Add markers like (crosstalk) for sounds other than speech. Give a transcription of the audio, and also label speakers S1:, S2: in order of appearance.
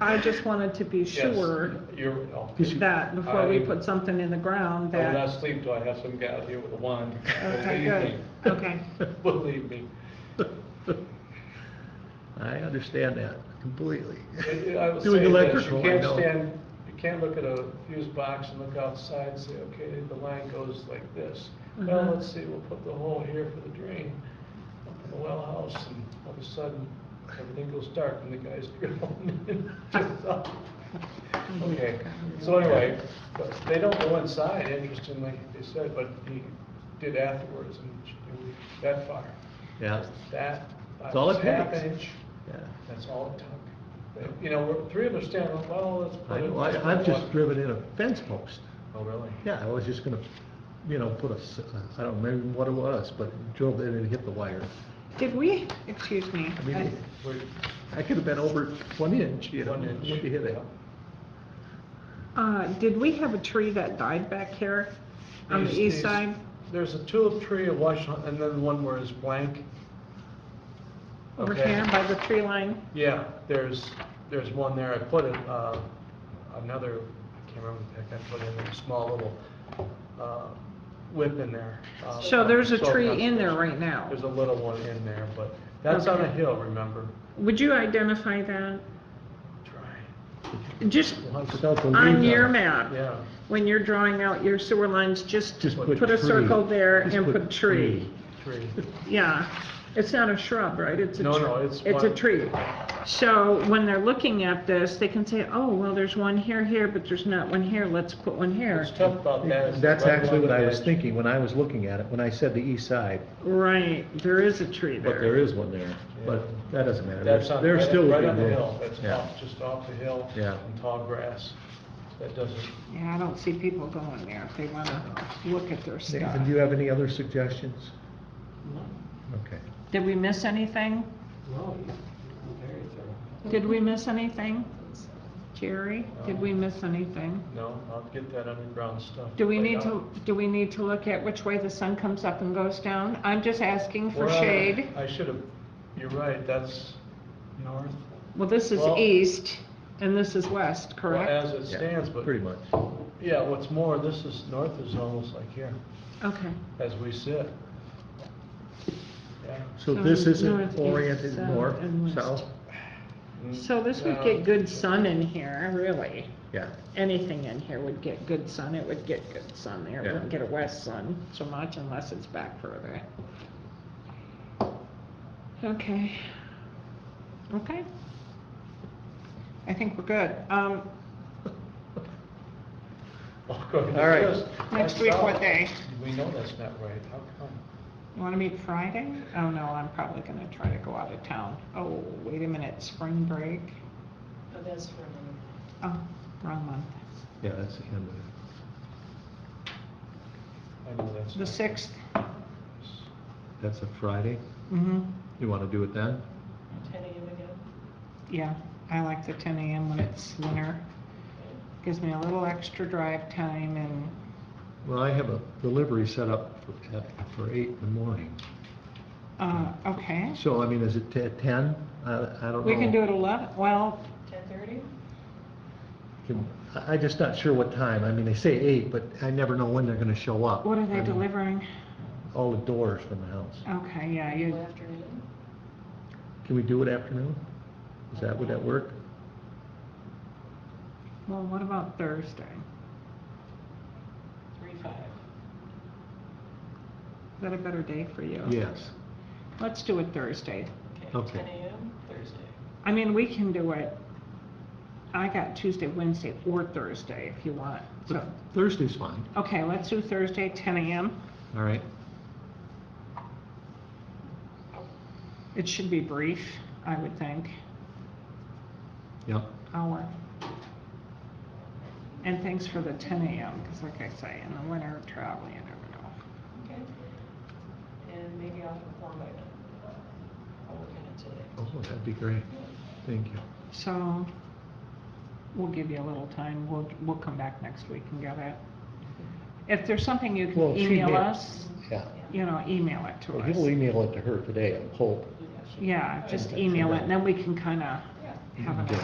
S1: I just wanted to be
S2: Yes,
S1: sure
S2: You're, no.
S1: that before we
S2: I-
S1: put something in the ground
S2: I will not
S1: that,
S2: sleep till I have some guy out here with a wand. (laughs)
S1: okay,
S2: Believe me.
S1: good, okay.
S2: Believe me.
S3: (laughs) I understand that
S1: (laughs)
S3: completely.
S2: I- I would
S3: Doing
S2: say this,
S3: electrical,
S2: you
S3: I
S2: can't
S3: know.
S2: stand, you can't look at a fuse box and look outside and say, okay, the line goes like this. Well,
S1: Mhm.
S2: let's see, we'll put the hole here for the drain, up in the well house, and all of a sudden, everything goes dark and the guy's (laughs) drilling. Okay, so anyway, but they don't go inside, interestingly, they said, but he did afterwards, and it was that far.
S3: Yeah,
S2: That, that
S3: It's all
S2: was
S3: it
S2: half
S3: takes.
S2: inch.
S3: yeah.
S2: That's all it took. You know, we're, three of us stand, up, well, let's put
S3: I
S2: it.
S3: know, I, I've just driven in a fence post.
S2: Oh, really?
S3: Yeah, I was just gonna, you know, put a, s- I don't remember what it was, but drove in and hit the wire.
S1: Did we, excuse me,
S3: I mean,
S1: I-
S2: We're-
S3: I could have been over one inch, you know,
S2: One
S3: when
S2: inch.
S3: you hit it.
S1: uh, did we have a tree that died back here on the
S2: These-
S1: east
S2: these-
S1: side?
S2: There's a tulip tree at Washington, and then one where it's blank.
S1: Over
S2: Okay.
S1: here by the tree line?
S2: Yeah, there's, there's one there, I put it, uh, another, I can't remember the heck, I put in a small little, uh, whip in there. Uh,
S1: So there's a
S2: soil
S1: tree in there
S2: conservation.
S1: right now.
S2: There's a little one in there, but that's on a
S1: Okay.
S2: hill, remember?
S1: Would you identify that?
S2: Try.
S1: Just
S3: Without the
S1: on
S3: leaves
S1: your
S3: on it.
S1: map,
S2: Yeah.
S1: when you're drawing out your sewer lines, just
S3: Just put
S1: put a
S3: tree.
S1: circle there
S3: Just
S1: and
S3: put
S1: put tree.
S2: Tree.
S1: Yeah, it's not a shrub, right? It's a
S2: No,
S1: tr-
S2: no, it's
S1: It's a
S2: one-
S1: tree. So when they're looking at this, they can say, oh, well, there's one here, here, but there's not one here, let's put one here.
S2: What's tough about that is.
S3: That's
S2: right
S3: actually
S2: along
S3: what
S2: the
S3: I was
S2: edge-
S3: thinking when I was looking at it, when I said the east side,
S1: Right, there is a tree there.
S3: but there is one there, but that doesn't matter.
S2: That's on,
S3: They're
S2: right
S3: still
S2: right on
S3: within
S2: the
S3: the-
S2: hill, that's
S3: yeah.
S2: off, just off the hill.
S3: Yeah.
S2: And tall grass, that doesn't,
S1: Yeah, I don't see people going there if they wanna look at their stuff.
S3: Nathan, do you have any other suggestions? Okay.
S1: Did we miss anything?
S4: No, you- you're very thorough.
S1: Did we miss anything? Jerry, did we miss anything?
S2: no, I'll get that underground stuff. uh,
S1: Do we
S2: laid
S1: need
S2: out.
S1: to, do we need to look at which way the sun comes up and goes down? I'm just asking for
S2: Well,
S1: shade.
S2: I should have, you're right, that's north.
S1: Well, this is
S2: Well-
S1: east and this is west,
S2: well, As
S1: correct?
S2: it
S3: Yeah,
S2: stands, but,
S3: Pretty much.
S2: yeah, what's more, this is, north is almost like here,
S1: Okay.
S2: as we sit. Yeah.
S3: So this
S1: north,
S3: isn't
S1: east,
S3: oriented
S1: south,
S3: north,
S1: and west.
S3: south?
S2: Mm,
S1: So this would
S2: yeah.
S1: get good sun in here, really.
S3: Yeah,
S1: Anything in here would get good sun. It would get good sun there. It
S3: Yeah.
S1: wouldn't get a west sun so much unless it's back further. Okay. Okay. I think we're good. Um,
S2: According to
S3: All right.
S2: this,
S1: next
S2: that's
S1: week, what
S2: south.
S1: day?
S2: We know that's not right, how come?
S1: You wanna meet Friday? Oh, no, I'm probably gonna try to go out of town. Oh, wait a minute, spring break?
S5: Oh, that's for another.
S1: Oh, wrong month.
S3: yeah, that's the end of it.
S2: I know that's.
S1: The
S2: not-
S1: sixth?
S3: That's a Friday.
S1: Mm-hmm.
S3: You want to do it then?
S5: ten AM again.
S1: Yeah, I like the ten AM when it's winter. Gives me a little extra drive time and,
S3: Well, I have a delivery set up for, at- for eight in the morning.
S1: uh, okay.
S3: So, I mean, is it at ten? I, I don't know.
S1: We can do it eleven, well,
S5: Ten thirty?
S3: Can- I, I'm just not sure what time. I mean, they say eight, but I never know when they're going to show up.
S1: what are
S3: I
S1: they
S3: mean,
S1: delivering?
S3: All the doors from the house.
S1: Okay, yeah, you,
S5: Afternoon?
S3: Can we do it afternoon? Is that, would that work?
S1: well, what about Thursday?
S5: Three five.
S1: Is that a better day for you?
S3: Yes.
S1: Let's do it Thursday.
S3: Okay.
S5: Ten AM Thursday.
S1: I mean, we can do it, I got Tuesday, Wednesday, or Thursday if you want, so,
S3: But Thursday's fine.
S1: okay, let's do Thursday, ten AM.
S3: All right.
S1: It should be brief, I would think,
S3: Yep.
S1: hour. And thanks for the ten AM, because like I say, in the winter, travel, you never know.
S5: Okay. And maybe I'll inform by then. I'll work on it today.
S3: Oh, that'd be great. Thank you.
S1: So, we'll give you a little time, we'll, we'll come back next week and get it. If there's something you
S3: Well,
S1: can
S3: she
S1: email
S3: may-
S1: us,
S3: Yeah.
S1: you know, email it to
S3: Well,
S1: us.
S3: he'll e- email it to her today, I hope.
S5: Yeah, she-
S1: Yeah, just email it, and then we can kinda
S5: Yeah.
S1: have an